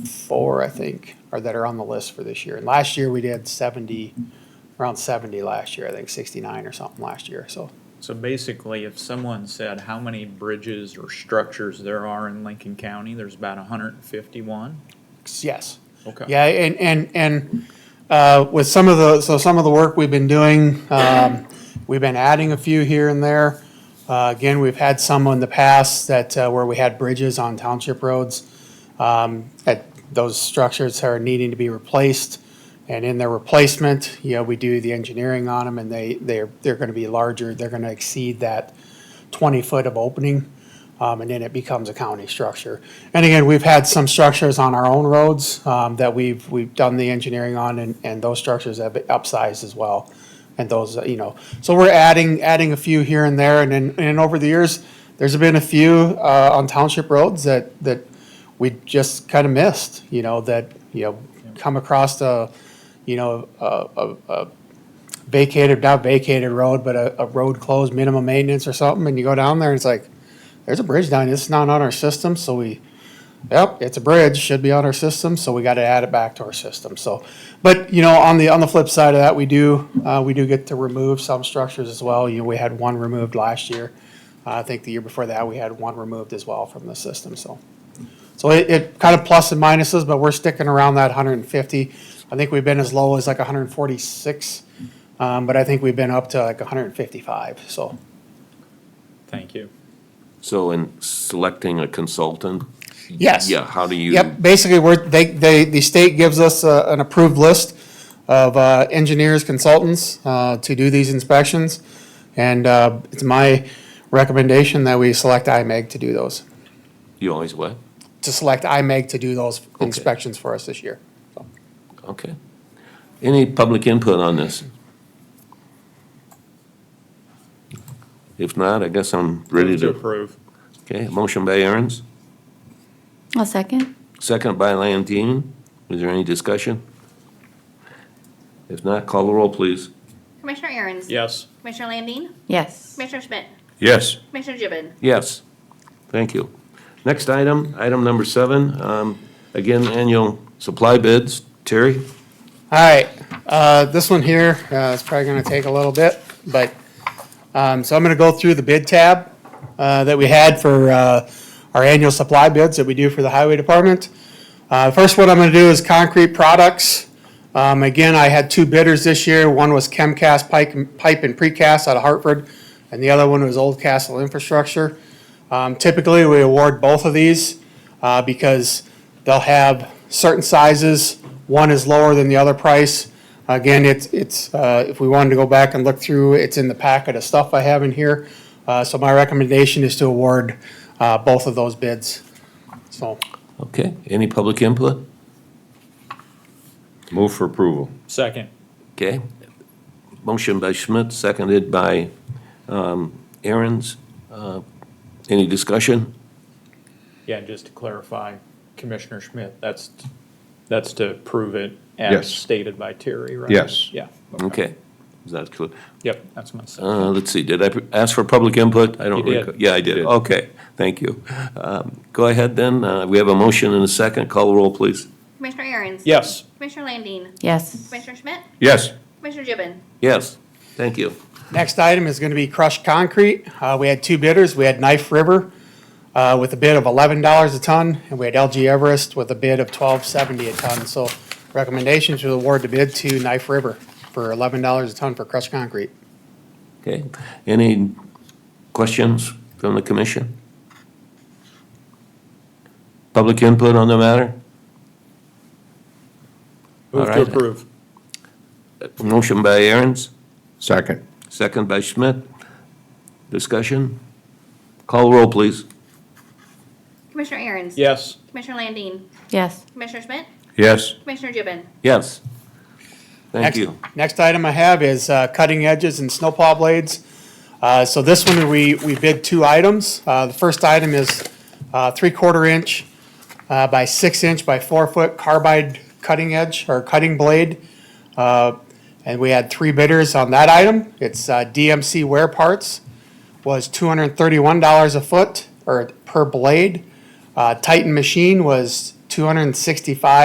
four, I think, or that are on the list for this year. And last year, we did seventy, around seventy last year, I think sixty-nine or something last year, so. So basically, if someone said how many bridges or structures there are in Lincoln County, there's about hundred and fifty-one? Yes. Okay. Yeah, and, and, and, uh, with some of the, so some of the work we've been doing, um, we've been adding a few here and there. Uh, again, we've had some in the past that, uh, where we had bridges on township roads. Um, that those structures are needing to be replaced. And in their replacement, you know, we do the engineering on them and they, they're, they're gonna be larger, they're gonna exceed that twenty foot of opening. Um, and then it becomes a county structure. And again, we've had some structures on our own roads, um, that we've, we've done the engineering on and, and those structures have been upsized as well. And those, uh, you know, so we're adding, adding a few here and there and then, and over the years, there's been a few, uh, on township roads that, that we just kind of missed, you know, that, you know, come across a, you know, a, a, a vacated, not vacated road, but a, a road closed, minimum maintenance or something, and you go down there and it's like, there's a bridge down, here. it's not on our system, so we, yep, it's a bridge, should be on our system, so we gotta add it back to our system, so. But, you know, on the, on the flip side of that, we do, uh, we do get to remove some structures as well, you know, we had one removed last year. Uh, I think the year before that, we had one removed as well from the system, so. So it, it kind of plus and minuses, but we're sticking around that hundred and fifty. I think we've been as low as like hundred and forty-six, um, but I think we've been up to like hundred and fifty-five, so. Thank you. So in selecting a consultant? Yes. Yeah, how do you? Yep, basically, we're, they, they, the state gives us uh, an approved list of uh, engineers, consultants uh, to do these inspections. And uh, it's my recommendation that we select IMEG to do those, You always what? to select IMEG to do those inspections for us this year. Okay. Any public input on this? If not, I guess I'm ready Move To to, approve. okay, motion by Aaron's, I'll second. second by Landine. Is there any discussion? If not, call the roll, please. Commissioner Aaron's. Yes. Commissioner Landine. Yes. Commissioner Schmidt. Yes. Commissioner Gibbon. Yes, thank you. Next item, item number seven, um, again, annual supply bids. Terry? All right, uh, this one here uh, is probably gonna take a little bit, but, um, so I'm gonna go through the bid tab, uh, that we had for, uh, our annual supply bids that we do for the highway department. Uh, first one I'm gonna do is concrete products. Um, again, I had two bidders this year. One was Chemcast Pike, Pipe and Precast out of Hartford, and the other one was Old Castle Infrastructure. Um, typically, we award both of these, uh, because they'll have certain sizes. One is lower than the other price. Again, it's, it's, uh, if we wanted to go back and look through, it's in the packet of stuff I have in here. Uh, so my recommendation is to award, uh, both of those bids. So, Okay, any public input? Move for approval. Second. Okay. Motion by Schmidt, seconded by um, Aaron's. Uh, Any discussion? Yeah, and just to clarify, Commissioner Schmidt, that's, that's to prove it as Yes. stated by Terry, right? Yes. Yeah. Okay. Is that clear? Yep, that's my second. Uh, Let's see, did I pr- ask for public input? I don't You did. recall. Yeah, I did. You did. Okay, thank you. Um, Go ahead then. Uh, We have a motion and a second. Call the roll, please. Commissioner Aaron's. Yes. Commissioner Landine. Yes. Commissioner Schmidt. Yes. Commissioner Gibbon. Yes, thank you. Next item is gonna be crushed concrete. Uh, we had two bidders. We had Knife River, uh, with a bid of eleven dollars a ton, and we had LG Everest with a bid of twelve seventy a ton. So recommendation to award the bid to Knife River for eleven dollars a ton for crushed concrete. Okay, any questions from the commission? Public input on the matter? Move to Alright. approve. Motion by Aaron's, Second. second by Schmidt. Discussion? Call roll, please. Commissioner Aaron's. Yes. Commissioner Landine. Yes. Commissioner Schmidt. Yes. Commissioner Gibbon. Yes. Thank Next- you. Next item I have is uh, cutting edges and snowplow blades. Uh, So this one, we, we bid two items. Uh, The first item is uh, three-quarter inch uh, by six-inch by four-foot carbide cutting edge or cutting blade. Uh, And we had three bidders on that item. It's uh, DMC Wear Parts was two hundred and thirty-one dollars a foot or per blade. Uh, Titan Machine was 265